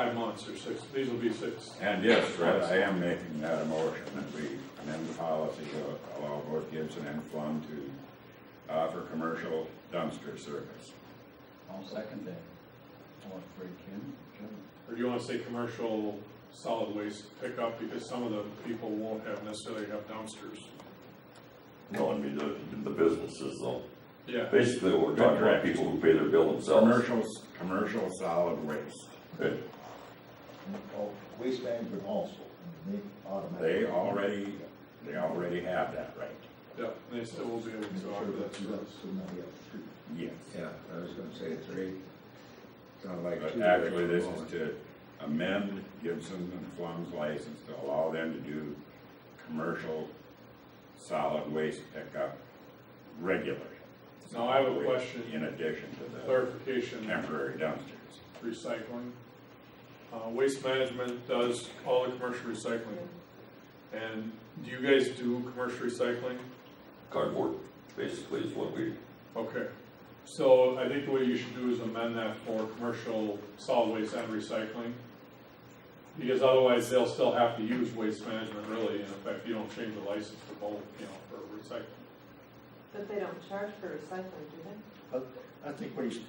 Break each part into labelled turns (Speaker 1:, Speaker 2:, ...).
Speaker 1: ones through six, these will be six.
Speaker 2: And yes, Fred, I am making that a motion that we amend the policy to allow both Gibson and Flum to offer commercial dumpster service.
Speaker 3: I'll second that. All three, Kim, Jim?
Speaker 1: Or do you wanna say commercial solid waste pickup, because some of the people won't have necessarily have dumpsters.
Speaker 4: No, I mean, the, the businesses though.
Speaker 1: Yeah,
Speaker 4: Basically, what we're talking about people who pay their bill themselves.
Speaker 2: Commercials, commercial solid waste,
Speaker 5: Oh, Waste management also, and they automatically.
Speaker 2: they already, they already have that right.
Speaker 1: yeah, and they still will be able
Speaker 5: Make
Speaker 1: to
Speaker 5: sure
Speaker 1: offer that
Speaker 5: that you got
Speaker 1: service.
Speaker 5: somebody else too.
Speaker 2: Yes.
Speaker 6: Yeah, I was gonna say it's eight. Sound like
Speaker 2: But
Speaker 6: two.
Speaker 2: actually, this is to amend Gibson and Flum's license to allow them to do commercial solid waste pickup regularly.
Speaker 1: Now, I have a
Speaker 2: With-
Speaker 1: question.
Speaker 2: In addition to the.
Speaker 1: Clarification,
Speaker 2: temporary dumpsters.
Speaker 1: recycling. Uh, waste management does all the commercial recycling. And do you guys do commercial recycling?
Speaker 4: Cardboard, basically, is what we,
Speaker 1: Okay, so I think the way you should do is amend that for commercial solid waste and recycling. Because otherwise, they'll still have to use waste management really, and in fact, you don't change the license for both, you know, for recycling.
Speaker 7: But they don't charge for recycling, do they?
Speaker 5: I think what he's t-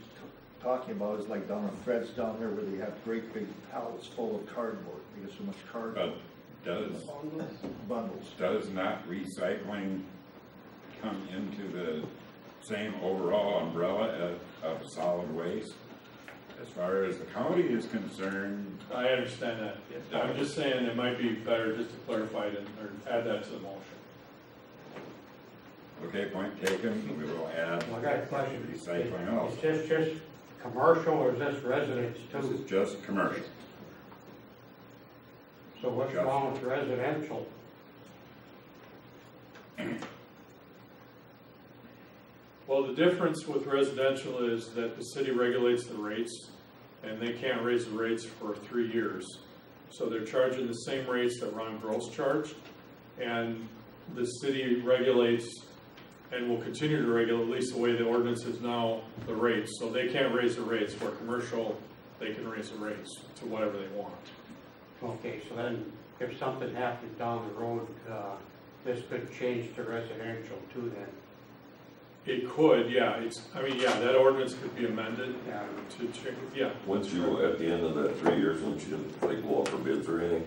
Speaker 5: talking about is like down on Fred's down there where they have great big pallets full of cardboard, they get so much
Speaker 2: But
Speaker 5: cardboard
Speaker 6: Oh,
Speaker 2: does,
Speaker 5: bundles.
Speaker 2: does not recycling come into the same overall umbrella of, of solid waste? As far as the county is concerned,
Speaker 1: I understand that, I'm just saying it might be better just to clarify it and, or add that to the motion.
Speaker 2: okay, point taken, we will add
Speaker 8: Well, I got a question.
Speaker 2: recycling also.
Speaker 8: Is this just commercial or is this residence
Speaker 2: This
Speaker 8: too?
Speaker 2: is just commercial.
Speaker 8: So what's
Speaker 2: just-
Speaker 8: wrong with residential?
Speaker 1: Well, the difference with residential is that the city regulates the rates, and they can't raise the rates for three years. So they're charging the same rates that Ron Gross charged, and the city regulates and will continue to regulate, at least the way the ordinance is now, the rates. So they can't raise the rates. For commercial, they can raise the rates to whatever they want.
Speaker 8: Okay, so then if something happened down the road, uh, this could change to residential too then.
Speaker 1: It could, yeah, it's, I mean, yeah, that ordinance could be amended
Speaker 8: Yeah.
Speaker 1: to check, yeah,
Speaker 4: once you, at the end of that three years, once you, like, go out for bids or anything.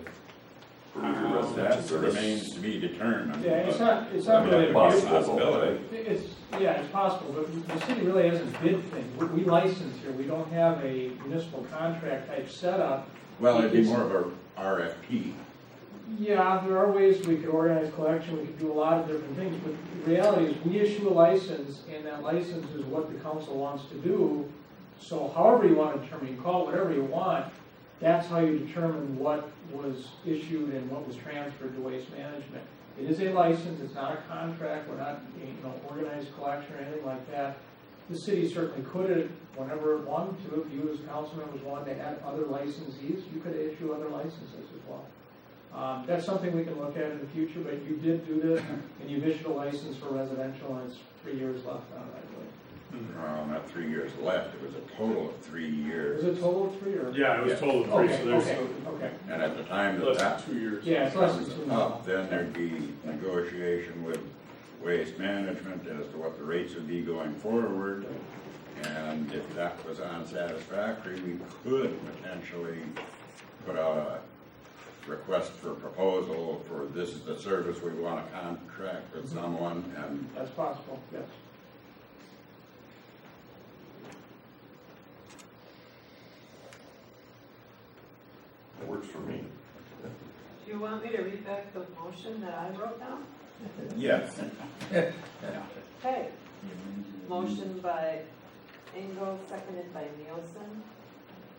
Speaker 4: For your
Speaker 2: How
Speaker 4: residential
Speaker 2: That
Speaker 4: service.
Speaker 2: remains to be determined.
Speaker 9: Yeah, it's not, it's
Speaker 4: I
Speaker 9: not
Speaker 4: mean, that's
Speaker 9: really, a
Speaker 4: possible,
Speaker 2: possibility.
Speaker 4: right?
Speaker 9: bid. it's, yeah, it's possible, but the city really has a bid thing. We- We license here, we don't have a municipal contract type setup.
Speaker 2: Well, it'd be more of a RFP.
Speaker 9: Yeah, there are ways we could organize collection, we could do a lot of different things, but the reality is, we issue a license, and that license is what the council wants to do. So however you want to determine, you can call it whatever you want, that's how you determine what was issued and what was transferred to waste management. It is a license, it's not a contract, we're not, you know, organized collection or anything like that. The city certainly could, whenever it wanted to, if you as council members wanted to add other licensees, you could issue other licenses as well. Um, That's something we can look at in the future, but you did do this, and you've issued a license for residential, and it's three years left on it, I believe.
Speaker 2: Well, not three years left, it was a total of three
Speaker 9: Is
Speaker 2: years.
Speaker 9: it total of three, or?
Speaker 1: yeah, it was total three,
Speaker 9: Okay,
Speaker 1: so there's
Speaker 9: okay, okay.
Speaker 2: And at the time that
Speaker 1: less
Speaker 2: that
Speaker 1: than two years.
Speaker 9: Yeah, it's less than two
Speaker 2: comes
Speaker 1: Oh.
Speaker 9: now.
Speaker 2: up, then there'd be negotiation with waste management as to what the rates would be going forward. And if that was unsatisfactory, we could potentially put out a request for proposal for this is the service we want to contract with someone and
Speaker 9: That's possible, yes.
Speaker 4: That works for me.
Speaker 7: Do you want me to read back the motion that I wrote down?
Speaker 2: yes,
Speaker 7: Okay, motion by Engel, seconded by Nielsen,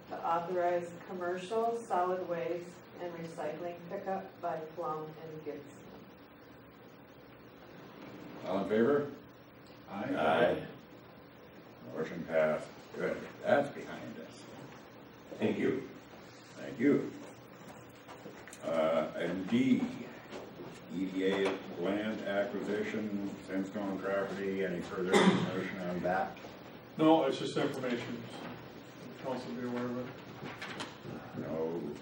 Speaker 7: to authorize commercial solid waste and recycling pickup by Plum and Gibson.
Speaker 2: all in favor?
Speaker 4: Aye.
Speaker 2: Motion passed. Good, that's behind us.
Speaker 4: Thank you.
Speaker 2: Thank you. Uh, Item D, EDA land acquisition, Sandstone property, any further information on that?
Speaker 1: No, it's just information, council be aware of it.